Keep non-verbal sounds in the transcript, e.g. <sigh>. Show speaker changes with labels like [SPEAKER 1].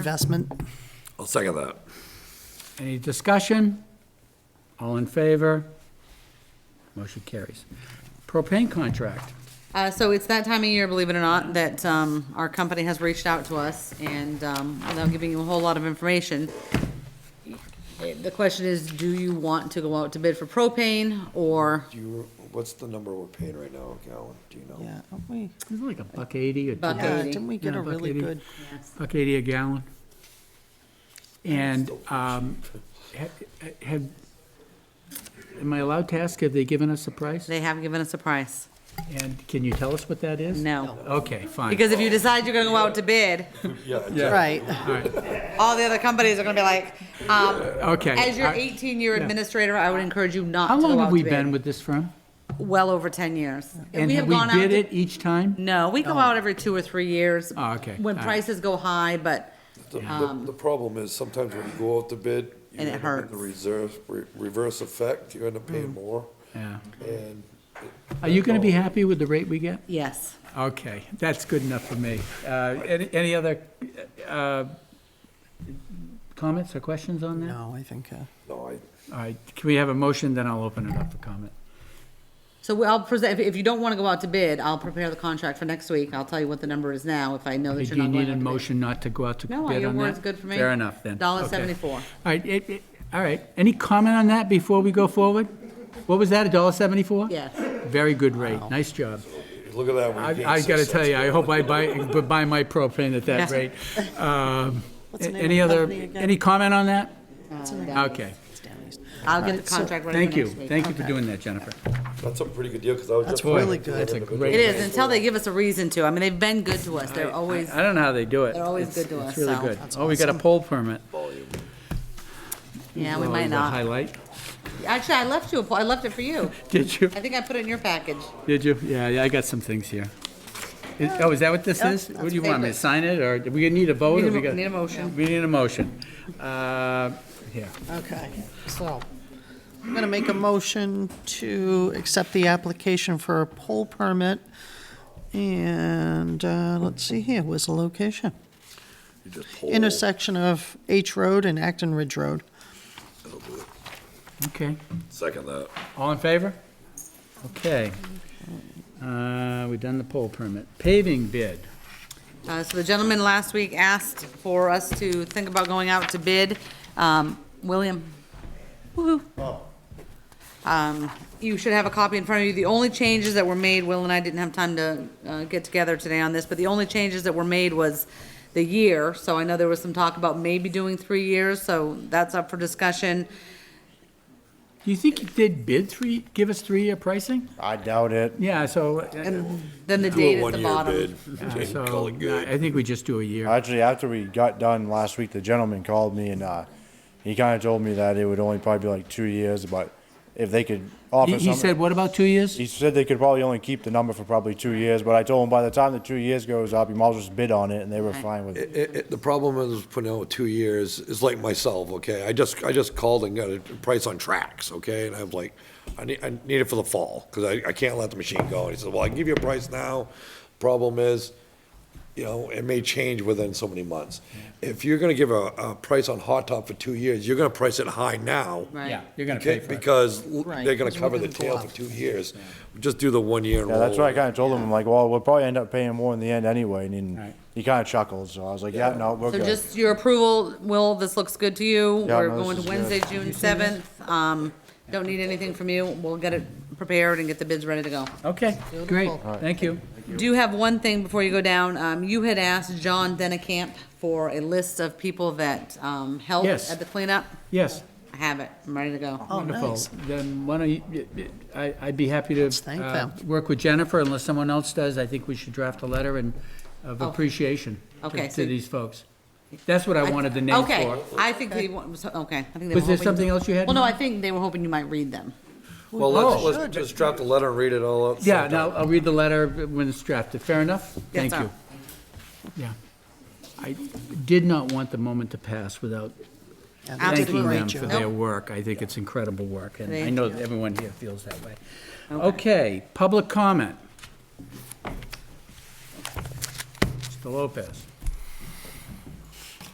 [SPEAKER 1] investment.
[SPEAKER 2] I'll second that.
[SPEAKER 3] Any discussion? All in favor? Motion carries. Propane contract.
[SPEAKER 4] Uh, so it's that time of year, believe it or not, that, um, our company has reached out to us and, um, without giving you a whole lot of information, it- the question is, do you want to go out to bid for propane or
[SPEAKER 5] Do you, what's the number we're paying right now, Calvin? Do you know?
[SPEAKER 1] Yeah, aren't we,
[SPEAKER 3] Is it like a buck eighty or two?
[SPEAKER 4] Buck
[SPEAKER 1] yeah,
[SPEAKER 4] Eighty.
[SPEAKER 1] didn't we get a
[SPEAKER 3] Yeah, buck
[SPEAKER 1] really
[SPEAKER 3] eighty.
[SPEAKER 1] good,
[SPEAKER 3] Buck eighty a gallon. And, um, ha- have, am I allowed to ask, have they given us a price?
[SPEAKER 4] they have given us a price?
[SPEAKER 3] And can you tell us what that is?
[SPEAKER 4] No.
[SPEAKER 3] Okay, fine.
[SPEAKER 4] Because if you decide you're gonna go out to bid,
[SPEAKER 1] right,
[SPEAKER 4] all the other companies are gonna be like, um,
[SPEAKER 3] Okay.
[SPEAKER 4] as your
[SPEAKER 3] I-
[SPEAKER 4] eighteen-year administrator, I would encourage you not to
[SPEAKER 3] How
[SPEAKER 4] go
[SPEAKER 3] long
[SPEAKER 4] out
[SPEAKER 3] have we
[SPEAKER 4] to
[SPEAKER 3] been
[SPEAKER 4] bid.
[SPEAKER 3] with this firm?
[SPEAKER 4] Well over ten years.
[SPEAKER 3] And
[SPEAKER 4] We
[SPEAKER 3] have
[SPEAKER 4] have
[SPEAKER 3] we
[SPEAKER 4] gone out
[SPEAKER 3] bid
[SPEAKER 4] to-
[SPEAKER 3] it each time?
[SPEAKER 4] No, we go out every two or three years.
[SPEAKER 3] Oh, okay.
[SPEAKER 4] When
[SPEAKER 3] All right.
[SPEAKER 4] prices go high, but
[SPEAKER 5] The- The, the problem is sometimes when you go out to bid. you
[SPEAKER 4] And it
[SPEAKER 5] end up with The
[SPEAKER 4] hurts.
[SPEAKER 5] reserve, re- reverse effect, you end up paying more
[SPEAKER 3] Yeah.
[SPEAKER 5] and.
[SPEAKER 3] Are you gonna be happy with the rate we get?
[SPEAKER 4] yes.
[SPEAKER 3] Okay, that's good enough for me. Uh, Any any other uh, comments or questions on that?
[SPEAKER 1] no, I think, uh,
[SPEAKER 5] No, I,
[SPEAKER 3] All right, can we have a motion, then I'll open it up for comment.
[SPEAKER 4] So we- I'll present, if- if you don't want to go out to bid, I'll prepare the contract for next week. I'll tell you what the number is now if I know
[SPEAKER 3] Do
[SPEAKER 4] that you're
[SPEAKER 3] you
[SPEAKER 4] not
[SPEAKER 3] need
[SPEAKER 4] going
[SPEAKER 3] a
[SPEAKER 4] out to bid.
[SPEAKER 3] motion not to go out to bid on
[SPEAKER 4] No,
[SPEAKER 3] that?
[SPEAKER 4] your word's good for me.
[SPEAKER 3] Fair enough, then.
[SPEAKER 4] Dollar
[SPEAKER 3] Okay.
[SPEAKER 4] seventy-four.
[SPEAKER 3] All right, it- it- all right, any comment on that before we go forward? What was that, a dollar seventy-four?
[SPEAKER 4] Yes.
[SPEAKER 3] Very good rate, nice job.
[SPEAKER 5] look at that. we
[SPEAKER 3] I
[SPEAKER 5] gained
[SPEAKER 3] I gotta
[SPEAKER 5] six
[SPEAKER 3] tell you, I hope I buy, buy my propane at that
[SPEAKER 4] <laughs> Yeah.
[SPEAKER 3] rate. Um,
[SPEAKER 1] What's the name of
[SPEAKER 3] Any
[SPEAKER 1] the
[SPEAKER 3] other,
[SPEAKER 1] company again?
[SPEAKER 3] any comment on that?
[SPEAKER 4] Uh,
[SPEAKER 3] Okay.
[SPEAKER 1] it's down east.
[SPEAKER 4] I'll get the contract ready
[SPEAKER 3] Thank
[SPEAKER 4] for
[SPEAKER 3] you,
[SPEAKER 4] next week.
[SPEAKER 3] thank you for doing that, Jennifer.
[SPEAKER 5] cents. That's a pretty good deal, cause I was
[SPEAKER 1] That's
[SPEAKER 5] just.
[SPEAKER 1] Boy, really
[SPEAKER 5] looking
[SPEAKER 1] good.
[SPEAKER 5] at
[SPEAKER 1] that's
[SPEAKER 3] a
[SPEAKER 5] the
[SPEAKER 3] great
[SPEAKER 5] bid.
[SPEAKER 4] It is, until they give us a reason to. I mean, they've been good to us. They're always,
[SPEAKER 3] I don't know how they do it.
[SPEAKER 4] They're always
[SPEAKER 3] It's-
[SPEAKER 4] good to us,
[SPEAKER 3] It's really
[SPEAKER 4] so-
[SPEAKER 3] good.
[SPEAKER 1] That's
[SPEAKER 3] Oh, we got a
[SPEAKER 1] awesome.
[SPEAKER 3] poll permit.
[SPEAKER 4] yeah, we
[SPEAKER 3] Oh,
[SPEAKER 4] might
[SPEAKER 3] the
[SPEAKER 4] not.
[SPEAKER 3] Highlight. <laughs>
[SPEAKER 4] Actually, I left you, a po- I left it for you.
[SPEAKER 3] Did you,
[SPEAKER 4] I think I put it in your package.
[SPEAKER 3] did you? Yeah, yeah, I got some things here. Is- Oh, is that what this is? What do you want, me to
[SPEAKER 4] favorite.
[SPEAKER 3] sign it, or do we need a vote?
[SPEAKER 4] Need
[SPEAKER 3] or
[SPEAKER 4] a
[SPEAKER 3] we
[SPEAKER 4] mo-
[SPEAKER 3] got-
[SPEAKER 4] need a motion.
[SPEAKER 3] We need a motion. Uh, Here,
[SPEAKER 1] Okay, so, I'm gonna make a motion to accept the application for a poll permit. And, uh, let's see here, where's the location?
[SPEAKER 2] You just hold.
[SPEAKER 1] Intersection of H Road and Acton Ridge Road.
[SPEAKER 3] okay.
[SPEAKER 2] Second that.
[SPEAKER 3] All in favor? Okay. Uh, We've done the poll permit. Paving bid.
[SPEAKER 4] Uh, So the gentleman last week asked for us to think about going out to bid. Um, William? Woo-hoo. Um, You should have a copy in front of you. The only changes that were made, Will and I didn't have time to uh, get together today on this, but the only changes that were made was the year. So I know there was some talk about maybe doing three years, so that's up for discussion.
[SPEAKER 3] Do you think you did bid three, give us three-year pricing?
[SPEAKER 6] I doubt it.
[SPEAKER 3] Yeah, so,
[SPEAKER 4] Then
[SPEAKER 2] Do
[SPEAKER 4] the date
[SPEAKER 2] a
[SPEAKER 4] is the
[SPEAKER 2] one-year
[SPEAKER 4] bottom.
[SPEAKER 2] bid.
[SPEAKER 3] uh,
[SPEAKER 2] and Call
[SPEAKER 3] so
[SPEAKER 2] it good.
[SPEAKER 3] I think we just do a year.
[SPEAKER 6] Actually, after we got done last week, the gentleman called me and uh, he kind of told me that it would only probably be like two years, but if they could offer
[SPEAKER 3] He he
[SPEAKER 6] something.
[SPEAKER 3] said, what about two years?
[SPEAKER 6] he said they could probably only keep the number for probably two years, but I told him by the time the two years goes up, you might as well just bid on it, and they were fine with it.
[SPEAKER 5] It, it, it- the problem is putting out two years is like myself, okay? I just, I just called and got a price on tracks, okay? And I was like, I need, I need it for the fall, because I, I can't let the machine go. And he said, well, I can give you a price now. Problem is, you know, it may change within so many months. If you're gonna give a, a price on hot top for two years, you're gonna price it high now.
[SPEAKER 4] Right.
[SPEAKER 3] Yeah, you're gonna
[SPEAKER 5] okay,
[SPEAKER 3] pay for it.
[SPEAKER 5] Because
[SPEAKER 1] Right,
[SPEAKER 5] they're gonna
[SPEAKER 1] because we're
[SPEAKER 5] cover the
[SPEAKER 1] gonna go
[SPEAKER 5] tail
[SPEAKER 1] up.
[SPEAKER 5] for two years. Just do the one year and
[SPEAKER 6] Yeah,
[SPEAKER 5] roll.
[SPEAKER 6] that's what I
[SPEAKER 5] over.
[SPEAKER 6] kind of told him. I'm like, well, we'll probably end up paying more in the end anyway, and
[SPEAKER 3] Right.
[SPEAKER 6] then he kind of chuckled, so I was like, yeah, no, we're
[SPEAKER 4] So
[SPEAKER 6] good.
[SPEAKER 4] just your approval, Will, this looks good to you.
[SPEAKER 6] Yeah,
[SPEAKER 4] We're
[SPEAKER 6] no, this
[SPEAKER 4] going
[SPEAKER 6] is
[SPEAKER 4] to
[SPEAKER 6] good.
[SPEAKER 4] Wednesday, June seventh. Um, don't need anything from you. We'll get it prepared and get the bids ready to go.
[SPEAKER 3] Okay, great,
[SPEAKER 1] Beautiful.
[SPEAKER 3] thank you.
[SPEAKER 4] Do have one thing before you go down. Um, you had asked John Dennekamp for a list of people that, um, helped
[SPEAKER 3] Yes. Oh.
[SPEAKER 4] at the cleanup.
[SPEAKER 3] Yes,
[SPEAKER 4] I have it. I'm ready to go.
[SPEAKER 3] wonderful.
[SPEAKER 1] nice.
[SPEAKER 3] Then why don't you, y- y- I, I'd be happy to
[SPEAKER 1] thank
[SPEAKER 3] uh,
[SPEAKER 1] them.
[SPEAKER 3] work with Jennifer unless someone else does. I think we should draft a letter and, of appreciation to-
[SPEAKER 4] Okay,
[SPEAKER 3] to
[SPEAKER 4] so-
[SPEAKER 3] these folks. That's what I wanted the name
[SPEAKER 4] Okay,
[SPEAKER 3] for.
[SPEAKER 4] I think they, wa- so- okay. I think
[SPEAKER 3] Was
[SPEAKER 4] they were
[SPEAKER 3] there
[SPEAKER 4] hoping-
[SPEAKER 3] something else you had in
[SPEAKER 4] Well, no, I
[SPEAKER 3] mind?
[SPEAKER 4] think they were hoping you might read them.
[SPEAKER 5] Well, let's, let's just drop the letter and read it all out.
[SPEAKER 3] Yeah, now, I'll read the letter when it's drafted. Fair enough? Thank
[SPEAKER 4] sir.
[SPEAKER 3] you. Yeah. I did not want the moment to pass without
[SPEAKER 1] Yeah, they did a
[SPEAKER 3] thanking
[SPEAKER 1] great
[SPEAKER 3] them for
[SPEAKER 1] job.
[SPEAKER 3] their work. I think it's incredible work, and I
[SPEAKER 4] Thank
[SPEAKER 3] know that everyone here feels that way. Okay, public comment. Mr. Lopez.